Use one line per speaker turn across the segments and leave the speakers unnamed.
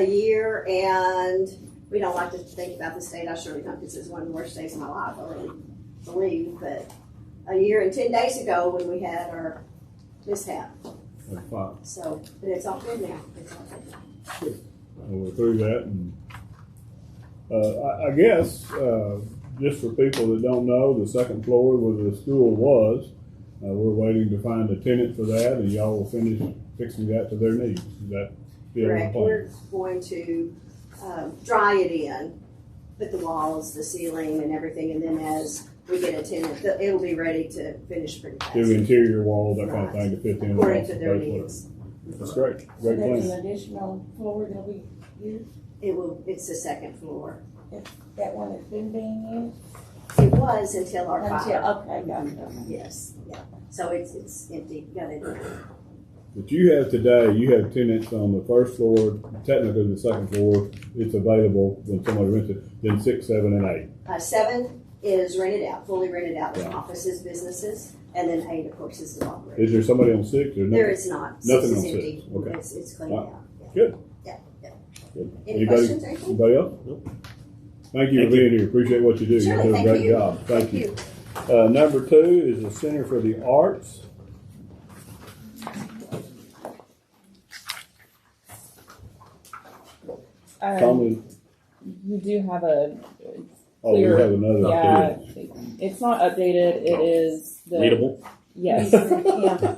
a year and we don't like to think about the state. I surely don't because it's one of the worst days of my life, I really believe, but a year and ten days ago when we had our mishap.
That's fine.
So, but it's all good now. It's all good. now.
And we're through that and, uh, I, I guess, uh, just for people that don't know, the second floor where the school was, uh, we're waiting to find a tenant for that and y'all will finish fixing that to their needs. Is that still the
Correct.
plan?
We're going to um, dry it in, put the walls, the ceiling and everything, and then as we get a tenant, th- it'll be ready to finish pretty fast.
Do interior walls, that kind of thing to fit in.
According
with
to
the
their
base level.
needs.
That's great,
So
great
that's
plan.
an additional floor that we use,
It will, it's the second floor.
that one that's been being
It was until our
used?
fire.
Until, okay, gotcha.
Yes, yeah. So it's, it's empty, got it.
But you have today, you have tenants on the first floor, technically the second floor, it's available when somebody rents it, then six, seven, and eight.
Uh, seven is rented out, fully rented out with
Yeah.
offices, businesses, and then eight, of course, is the library.
Is there somebody on six or no?
There is not. Six
nothing
is
on six.
empty.
Okay.
It's, it's cleaned
Wow.
out. yeah.
Good.
Yeah, yeah.
Good.
Any
Anybody-
questions, anything?
Anybody else? Thank you for
Thank you.
being here, appreciate what you do, you
Sure,
do a
thank
great
you.
job, thank you. Uh, number two is the Center for the Arts.
Um,
Tommy,
you do have a,
oh, we
clear.
have another.
yeah, it's not updated, it is the.
Readable.
Yes,
Yeah,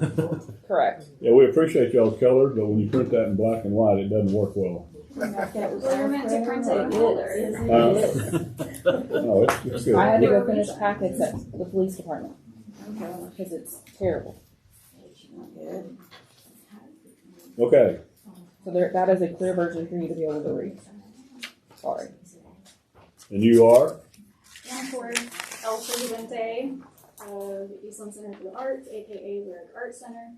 correct.
Yeah, we appreciate y'all's colors, but when you print that in black and white, it doesn't work well.
like that was
Well,
our
we're meant to print
friend.
it older.
Yes, it
Huh?
is.
Uh, No, it's, it's good.
I had to go finish packets at the police department, because it's terrible.
Good.
Okay,
So there, that is a clear version for you to be able to read. Sorry.
and you are?
One for El Presidente of the Eastland Center for the Arts, aka Lyric Art Center.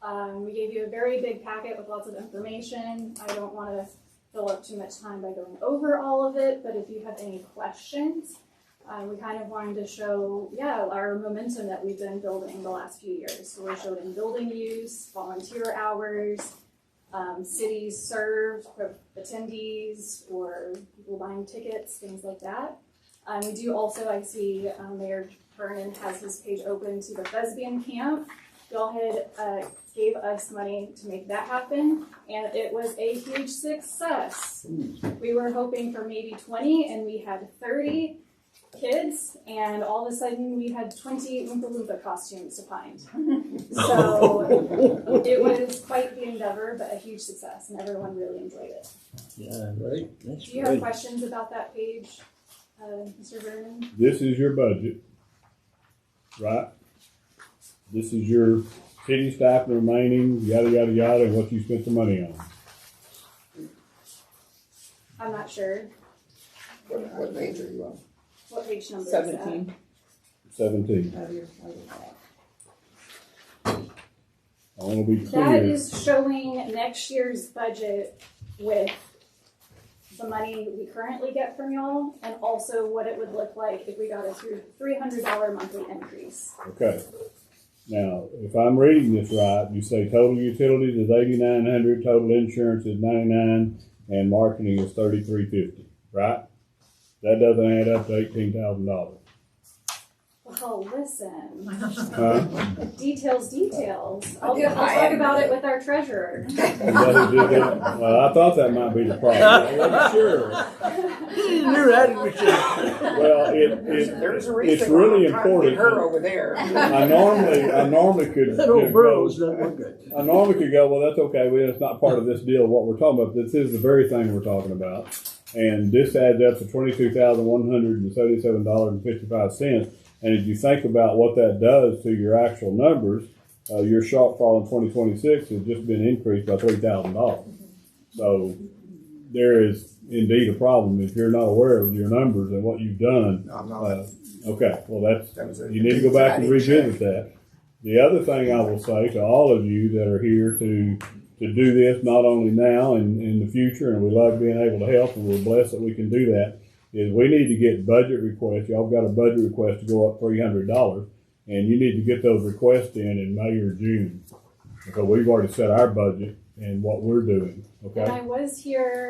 Um, we gave you a very big packet with lots of information. I don't want to fill up too much time by going over all of it, but if you have any questions, uh, we kind of wanted to show, yeah, our momentum that we've been building the last few years. So we're showing building use, volunteer hours, um, cities served, attendees, or people buying tickets, things like that. Um, we do also, I see um, Mayor Vernon has his page open to the Thespian Camp. Y'all had uh, gave us money to make that happen, and it was a huge success. We were hoping for maybe 20, and we had 30 kids, and all of a sudden we had 20 Oompa Loompa costumes to find. So it was quite the endeavor, but a huge success, and everyone really enjoyed it.
Yeah, right. That's
Do you have questions about that page, uh, Mr. Vernon?
This is your budget, right? This is your city staff remaining, yada, yada, yada, and what you spent the money on.
I'm not sure.
What, what page are you on?
What page number is that?
Seventeen.
Seventeen.
Oh, you're so right.
I wanna be
That
clear.
is showing next year's budget with the money we currently get from y'all and also what it would look like if we got a three hundred dollar monthly increase.
Okay. Now, if I'm reading this right, you say total utilities is eighty-nine hundred, total insurance is ninety-nine, and marketing is thirty-three fifty, right? That doesn't add up to eighteen thousand dollars.
Well, Oh, listen,
Huh?
details, details. I'll, I'll talk about it with our treasurer.
Is that- is that- Well, I thought that might be the problem. I wasn't sure.
You're at it with
Well, it,
There's,
it,
there's a
it's
reason
really
why I'm trying to
important.
get her over there.
I normally, I normally could.
That old
could
burrow's
go-
not look good.
I normally could go, well, that's okay, well, it's not part of this deal, what we're talking about, this is the very thing we're talking about. And this adds up to twenty-two thousand one hundred and seventy-seven dollars and fifty-five cents. And if you think about what that does to your actual numbers, uh, your shortfall in twenty twenty-six has just been increased by three thousand dollars. So there is indeed a problem if you're not aware of your numbers and what you've done.
I'm
Uh, Okay, well, that's,
That was it.
you need to go back and
I didn't check.
revisit that. The other thing I will say to all of you that are here to, to do this, not only now and in the future, and we love being able to help, and we're blessed that we can do that, is we need to get budget requests, y'all got a budget request to go up three hundred dollars, and you need to get those requests in in May or June. Because we've already set our budget and what we're doing, okay?
And I was here